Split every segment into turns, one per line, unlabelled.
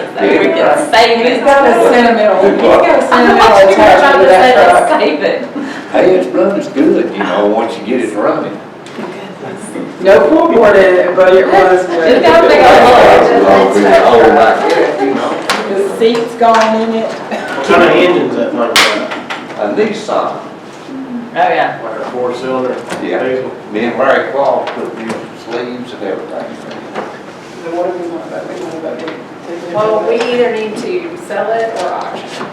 though, we can save
He's
it.
got a sentimental, he's got a
I know
sentimental
what you were
attachment
trying
to
to say, let's
that truck.
save it.
Hey, it's run, it's good, you know, once you get it running.
No pool board in it, but it was, good.
You gotta think of
It's
it.
old like that, you know,
the seat's gone in it.
What kind of engines that thing
a
got?
Nissan,
Oh, yeah.
Like a four cylinder
yeah.
diesel?
Me and Mary Claw put new sleeves and everything.
Well, we either need to sell it or auction.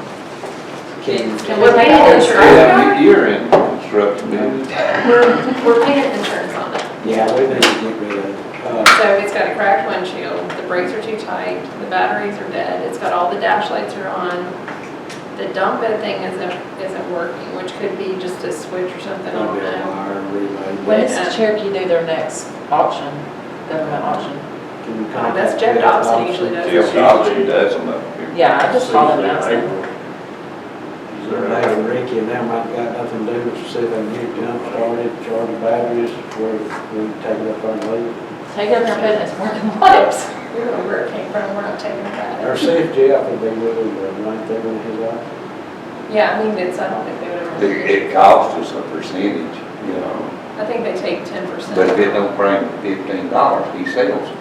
Can.
And we're paying insurance,
Yeah, you're in construction, man.
we're, we're paying insurance on it.
Yeah, we need to get rid of it. Uh,
So it's got a cracked windshield, the brakes are too tight, the batteries are dead, it's got all the dash lights are on. The dump bed thing isn't, isn't working, which could be just a switch or something, I
I'll
don't
be a
know.
wire
When
relay.
does the Cherokee do their next auction, government auction?
Can you contact
That's Jeff
Jeff
Dobson
Dobson?
usually does.
Jeff Dodson does them up here.
Yeah, I just saw them announcement.
He's there now, Ricky, and them I've got nothing to do, but see if they can get it jump started, charge the batteries, where we can take it up and leave.
Take it up there and put it in its parking lots.
We don't know where it came from, we're not taking it back.
Or see if Jeff would be willing to run through in his office.
Yeah, I mean, it's, I don't think they would
It-
ever.
It costs us a percentage, you know,
I think they take ten percent.
but if it don't bring fifteen dollars, he sells. it.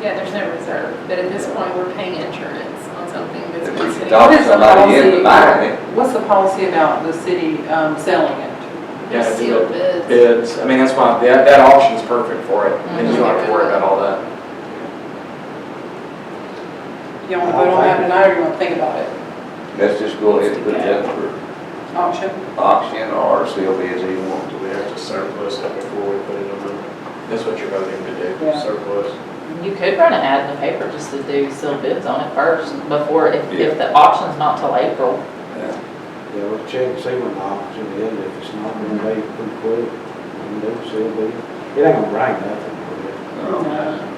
Yeah, there's no reserve, but at this point, we're paying insurance on something that's
If
been
we can
sitting.
talk
Oh,
What is the
somebody into
policy?
buying it,
What's the policy about the city um, selling it?
Yeah, I do
Sealed bids.
bids, I mean, that's why, that, that auction's perfect for it,
Mm-hmm.
Mm-hmm.
and you don't have to worry about all that.
You want to vote on that tonight, or you want to think about it?
let's just go ahead and put it up for
Auction?
auction or sale bids, either one.
Do we have to surplus it before we put it on the,
That's what you're voting to do.
Yeah.
surplus?
You could run an ad in the paper just to do sealed bids on it first before, if, if the auction's not till April.
Yeah, we'll check, and see when the auction is, if it's not, then they pretty quick, and they'll see, it'll be, it ain't gonna bring nothing. will it?
No.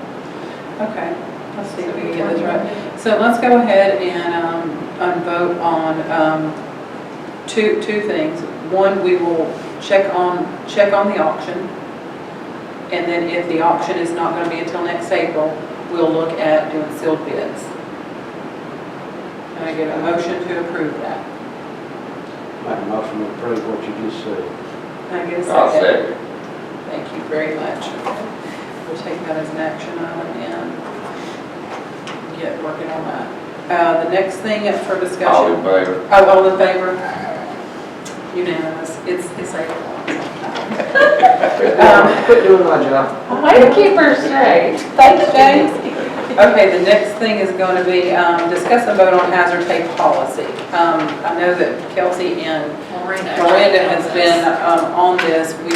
Okay, let's see if we
So
can get this right. So let's go ahead and, um, and vote on, um, two, two things. One, we will check on, check on the auction. And then if the auction is not gonna be until next April, we'll look at doing sealed bids. Can I get a motion to approve that?
Make a motion to approve what you just said.
Can I get a
I'll
second?
second.
Thank you very much. We'll take that as an action item and get working on that. Uh, the next thing for discussion.
All in favor?
Oh, all in favor? Unanimous, it's, it's like. Um,
Quit doing my job.
Why do you keep her straight?
Thanks, James. Okay, the next thing is going to be, um, discuss and vote on hazard pay policy. Um, I know that Kelsey and
Miranda.
Miranda has been, um, on this, we,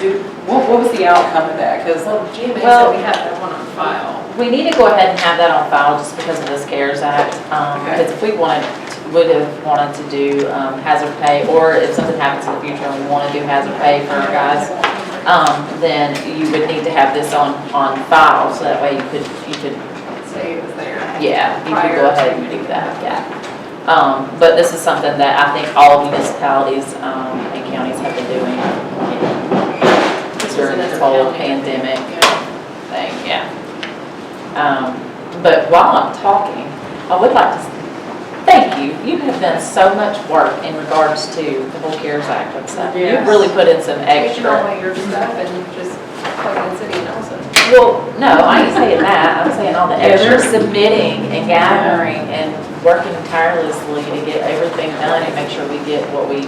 do, what, what was the outcome of that? Because
Well, GMA said
Well-
we have that one on file.
We need to go ahead and have that on file just because of this CARES Act. um,
Okay.
Because if we wanted, would have wanted to do um, hazard pay, or if something happens in the future and we want to do hazard pay for our guys, um, then you would need to have this on, on file, so that way you could, you could,
Say it was there.
yeah, you could go ahead and do that, yeah. Um, But this is something that I think all municipalities um, and counties have been doing
This was
during this
another
whole
county.
pandemic
Yeah.
thing, yeah. Um, But while I'm talking, I would like to s- thank you. You have done so much work in regards to the whole CARES Act and stuff. You've
Yes.
really put in some
Taking all
extra.
of your stuff and just plugging city and also.
Well, no, I ain't saying that. I'm saying all the
Yeah,
extra
they're-
submitting and gathering and working tirelessly to get everything done and make sure we get what we,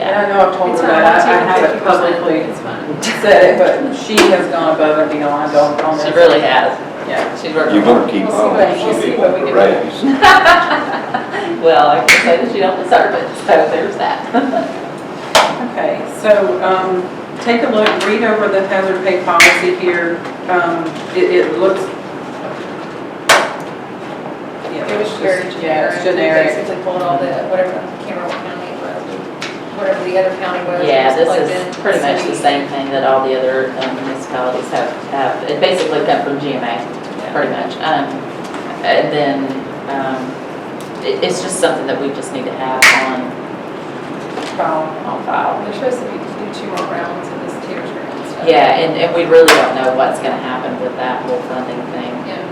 And
yeah.
I know I've told
It's
her
not
that, I I
up to
haven't
50%,
publicly
It's fine.
said it, but she has gone above and beyond on, on this.
She really has.
Yeah.
She's working.
You gonna keep
We'll see
on,
what- we'll
she
see
did
what we
the
can do.
raise.
Well, I can say that you don't deserve it, so there's that.
Okay, so, um, take a look, read over the hazard pay policy here. Um, it, it looks. Yeah,
It was
it's
very
just-
generic.
Yeah, it's
We
generic.
Basically pulled all the, whatever Cameron County was, whatever the other county was.
Yeah,
just
this
plugged
is
in
pretty much the
city.
same thing that all the other um, municipalities have, have, it basically come from GMA, pretty much. Um, And then, um, it, it's just something that we just need to have on,
File.
on file.
They're supposed to be, do two more rounds of this tears grant stuff.
Yeah, and, and we really don't know what's gonna happen with that whole funding thing.
Yeah.